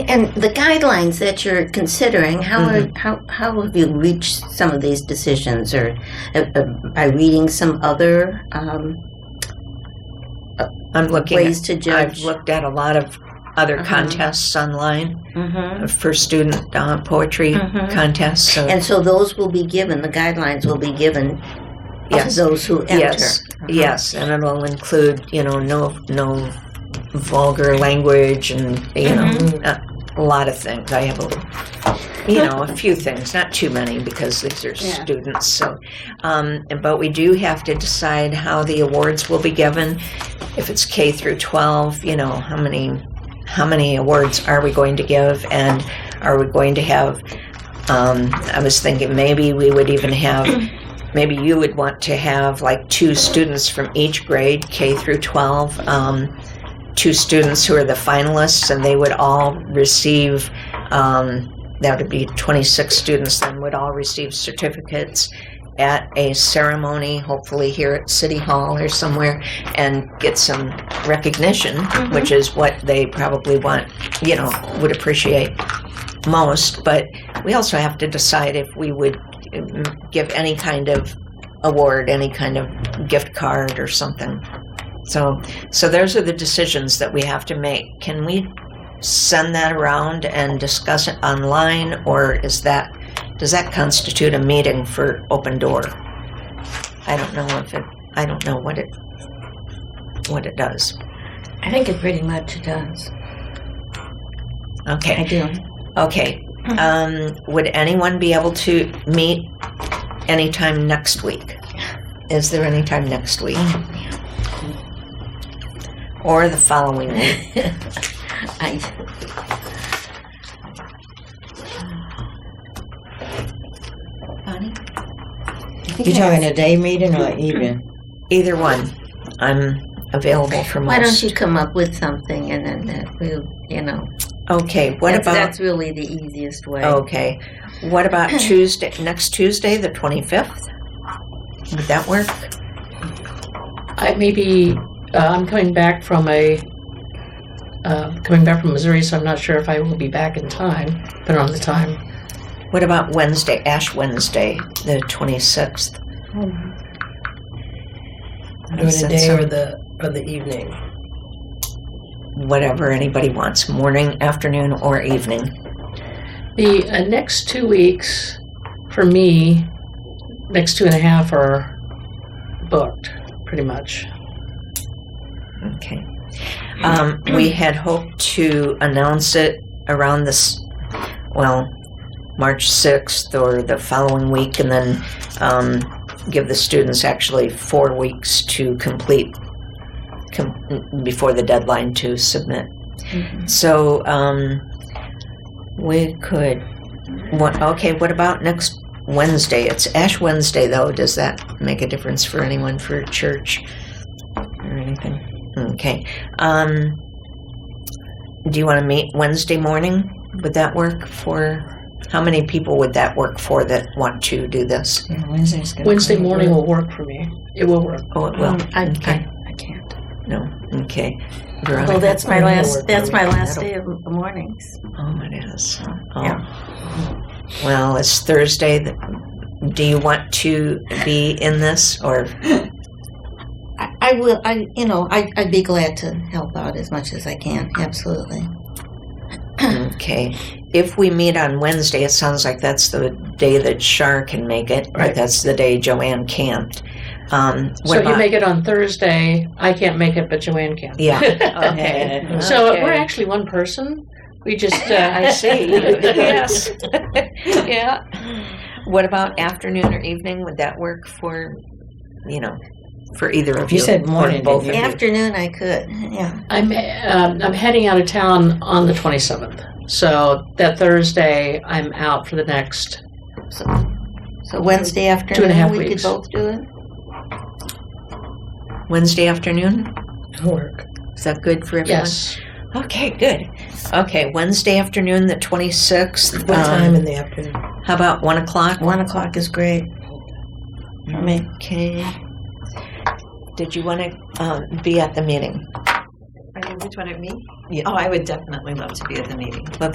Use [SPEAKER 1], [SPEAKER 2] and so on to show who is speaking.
[SPEAKER 1] And the guidelines that you're considering, how
[SPEAKER 2] Mm-hmm.
[SPEAKER 1] are, how, how have you reached some of these decisions, or uh, uh, by reading some other um,
[SPEAKER 2] I'm looking. at-
[SPEAKER 1] ways to
[SPEAKER 2] I've
[SPEAKER 1] judge?
[SPEAKER 2] looked at a lot of other
[SPEAKER 1] Uh-huh.
[SPEAKER 2] contests online
[SPEAKER 1] Mhm.
[SPEAKER 2] uh, for student uh, poetry
[SPEAKER 1] Mhm.
[SPEAKER 2] contests. So
[SPEAKER 1] And so those will be given. The guidelines will be given
[SPEAKER 2] Yes.
[SPEAKER 1] to those who enter.
[SPEAKER 2] yes,
[SPEAKER 1] Uh-huh.
[SPEAKER 2] yes, and it'll include you know no no vulgar language and you know a, a lot of things. I have a you know a few things, not too many because these are
[SPEAKER 3] Yeah.
[SPEAKER 2] students. So, um, but we do have to decide how the awards will be given. If it's K through twelve, you know how many how many awards are we going to give, and are we going to have um, I was thinking maybe we would even have, maybe you would want to have like two students from each grade, K through 12, um, two students who are the finalists, and they would all receive, um, that would be 26 students then, would all receive certificates at a ceremony, hopefully here at City Hall or somewhere, and get some recognition, which is what they probably want, you know, would appreciate most, but we also have to decide if we would um, give any kind of award, any kind of gift card or something. So, so those are the decisions that we have to make. Can we send that around and discuss it online, or is that does that constitute a meeting for open door? I don't know if it. I don't know what it what it does.
[SPEAKER 3] I think it pretty much does.
[SPEAKER 2] Okay.
[SPEAKER 3] I do.
[SPEAKER 2] Okay. Um, would anyone be able to meet anytime next week? Is there any time next week? Or the following week?
[SPEAKER 3] I,
[SPEAKER 2] Bonnie?
[SPEAKER 4] You're talking a day meeting or evening?
[SPEAKER 2] Either one. I'm available for most.
[SPEAKER 1] Why don't you come up with something and then that we'll, you know,
[SPEAKER 2] Okay, what
[SPEAKER 1] that's,
[SPEAKER 2] about, Oh,
[SPEAKER 1] that's really the easiest way.
[SPEAKER 2] okay. What about Tuesday, next Tuesday, the 25th? Would that work?
[SPEAKER 5] I maybe uh, I'm coming back from a uh, coming back from Missouri, so I'm not sure if I will be back in time. But on the time,
[SPEAKER 2] What about Wednesday, Ash Wednesday, the 26th?
[SPEAKER 6] During the
[SPEAKER 2] Since
[SPEAKER 6] day
[SPEAKER 2] I'm-
[SPEAKER 6] or the or the evening.
[SPEAKER 2] whatever anybody wants, morning, afternoon, or evening.
[SPEAKER 5] the uh, next two weeks for me, next two and a half are booked pretty much.
[SPEAKER 2] Okay. Um, we had hoped to announce it around this, well, March 6th or the following week, and then um, give the students actually four weeks to complete com- before the deadline to submit. So um, we could. What, okay, what about next Wednesday? It's Ash Wednesday, though. Does that make a difference for anyone for church or anything? Hmm. Okay. Um, do you want to meet Wednesday morning? Would that work for? How many people would that work for that want to do this?
[SPEAKER 4] Yeah, Wednesday's good.
[SPEAKER 5] Wednesday morning will work for me. It will work.
[SPEAKER 2] Oh, it will.
[SPEAKER 5] Mm,
[SPEAKER 3] I,
[SPEAKER 2] okay.
[SPEAKER 3] Mm, I, I can't.
[SPEAKER 2] No. Okay.
[SPEAKER 3] Well,
[SPEAKER 2] Veronica.
[SPEAKER 3] that's my
[SPEAKER 6] That'll
[SPEAKER 3] last.
[SPEAKER 6] work
[SPEAKER 3] That's
[SPEAKER 6] for me.
[SPEAKER 3] my last day of the mornings.
[SPEAKER 2] Oh, it is. Oh.
[SPEAKER 3] Yeah.
[SPEAKER 2] Well, it's Thursday. th- Do you want to be in this or?
[SPEAKER 1] I, I will. I you know I I'd be glad to help out as much as I can. Absolutely.
[SPEAKER 2] Okay. If we meet on Wednesday, it sounds like that's the day that Shar can make it, or
[SPEAKER 5] Right.
[SPEAKER 2] that's the day Joanne can't. Um, what
[SPEAKER 5] so
[SPEAKER 2] about-
[SPEAKER 5] you make it on Thursday. I can't make it, but Joanne can.
[SPEAKER 2] Yeah. Okay.
[SPEAKER 5] So
[SPEAKER 2] Okay.
[SPEAKER 5] we're actually one person. We just uh,
[SPEAKER 2] I see. yes.
[SPEAKER 5] yeah.
[SPEAKER 2] What about afternoon or evening? Would that work for, you know, for either of you?
[SPEAKER 4] You said
[SPEAKER 2] or
[SPEAKER 4] morning,
[SPEAKER 2] both of
[SPEAKER 4] didn't you?
[SPEAKER 2] you?
[SPEAKER 1] Afternoon, I could. Yeah.
[SPEAKER 5] I'm um, I'm heading out of town on the 27th. So that Thursday, I'm out for the next.
[SPEAKER 1] So, so Wednesday afternoon,
[SPEAKER 5] half
[SPEAKER 1] we could
[SPEAKER 5] weeks.
[SPEAKER 1] both do it.
[SPEAKER 2] Wednesday afternoon?
[SPEAKER 6] Work.
[SPEAKER 2] Is that good for everyone?
[SPEAKER 5] Yes,
[SPEAKER 2] Okay, good. Okay, Wednesday afternoon, the 26th.
[SPEAKER 6] What
[SPEAKER 2] um,
[SPEAKER 6] time in the afternoon?
[SPEAKER 2] How about 1 o'clock? Mm-hmm.
[SPEAKER 1] One o'clock is great. For me,
[SPEAKER 2] Okay. Did you want to um, be at the meeting?
[SPEAKER 7] I know which one it me.
[SPEAKER 2] Yeah.
[SPEAKER 7] Oh, I would definitely love to be at the meeting.